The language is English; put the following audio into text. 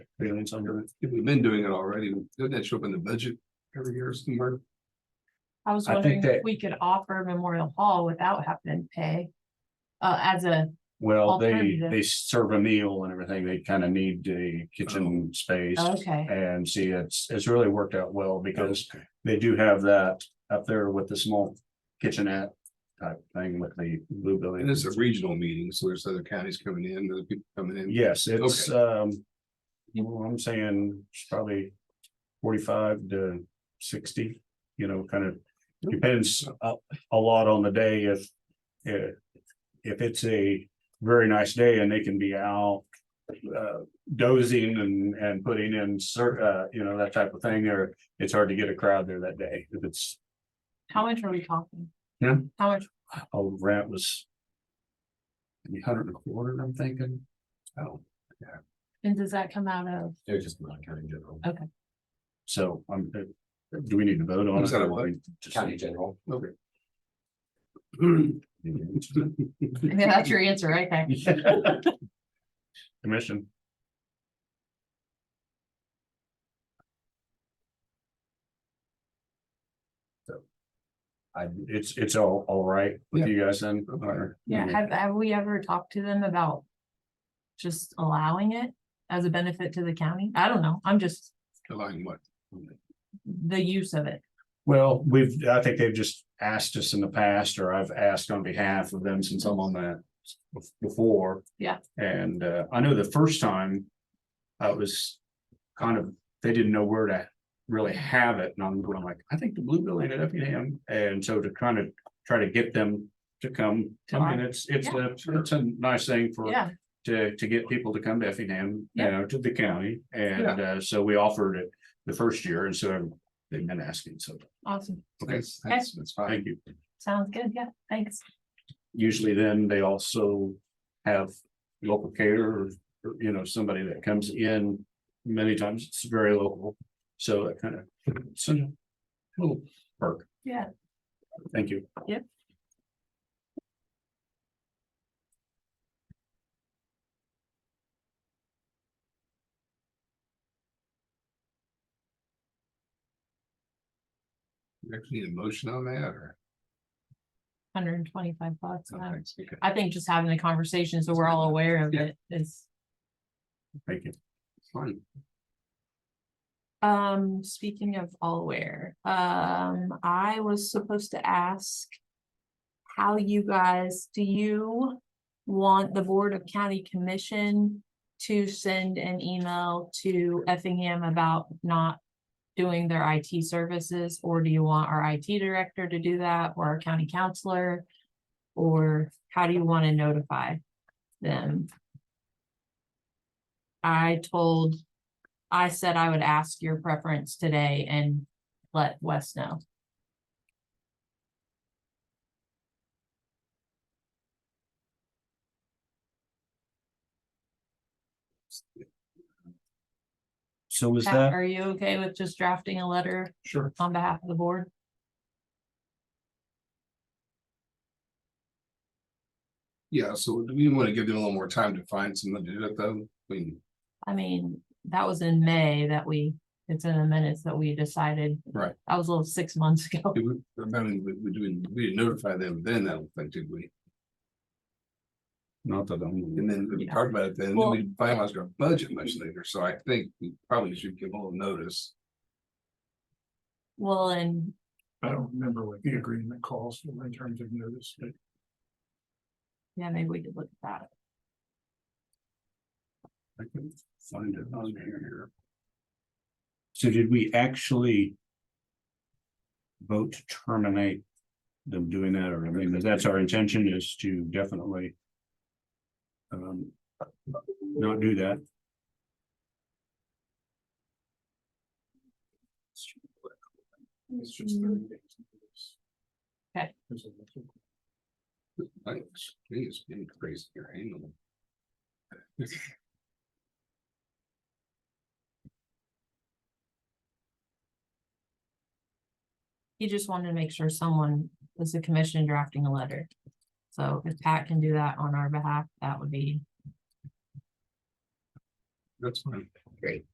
feelings under it. If We've been doing it already. Doesn't that show up in the budget every year somewhere? I was I think wondering if that- we could offer Memorial Hall without having to pay. Uh, as a, Well, they, Alternative. they serve a meal and everything. They kind of need a kitchen space. Oh, okay, And see, it's, it's really worked out well because they do have that up there with the small kitchenette type thing with the blue building. And it's a regional meeting, so there's other counties coming in, other people coming in. Yes, it's, um, you know, I'm saying it's probably forty-five to sixty, you know, kind of depends a, a lot on the day if, if, if it's a very nice day and they can be out uh, dozing and, and putting in cer- uh, you know, that type of thing, or it's hard to get a crowd there that day. If it's, how much are we talking? Yeah. How much, oh, rent was maybe hundred and a quarter, I'm thinking. Oh, and does that come out of, they're just not county general. So, um, uh, do we need to vote on I'm it? sorry, or what? we just- general. Okay. I mean, that's your answer right there. Commission, I, it's, it's all, all right with you guys then? Okay. Or- Yeah, have, have we ever talked to them about just allowing it as a benefit to the county? I don't know, I'm just allowing what? the use of it. Well, we've, I think they've just asked us in the past, or I've asked on behalf of them since I'm on that bef- before. Yeah. And, uh, I know the first time I was kind of, they didn't know where to really have it, and I'm going like, I think the Blue Building at Effingham, and so to kind of try to get them to come, I mean, it's, it's, a it's a nice thing for Yeah, to, to get people to come to Effingham, you Yeah. know, to the county. And, uh, so we offered it the first year and so they've been asking. So awesome, Okay. That's, that's, that's fine. thank you. sounds good, yeah, thanks. Usually then they also have local care or, or, you know, somebody that comes in. Many times it's very local. So that kind of, it's a little perk. Yeah. Thank you. You Actually, need a motion on that or? Hundred and twenty-five bucks, Uh, no, I- thanks, okay. I think just having a conversation, so we're all aware of Yeah. it is. Thank you. Fine. Um, speaking of all aware, um, I was supposed to ask. How you guys, do you want the Board of County Commission to send an email to Effingham about not? Doing their IT services, or do you want our IT director to do that, or our county counselor? Or how do you want to notify them? I told I said I would ask your preference today and let Wes know. So was Pat, Are you okay with just drafting a letter Sure. on behalf of the board? Yeah, so do we want to give them a little more time to find someone to do it though? I mean, I mean, that was in May that we, it's in the minutes that we decided. Right. That was a little six months ago. it would- I mean, we, we didn't, we didn't notify them then, I don't think, did we? Not that I'm. And then we Yeah. talked about it then, and then Well- we finalized our budget much later, so I think we probably should give a little notice. Well, and I don't remember what the agreement calls for in terms of notice, but yeah, maybe we could look at that. I couldn't find it on here. So did we actually? Vote to terminate them doing that, or I mean, that's our intention is to definitely. Um, not do that. it's just thirty days. notice. Okay. There's a little- Thanks, geez, getting crazy here, hang on. He just wanted to make sure someone was the commission drafting a letter. So if Pat can do that on our behalf, that would be That's fine. Great.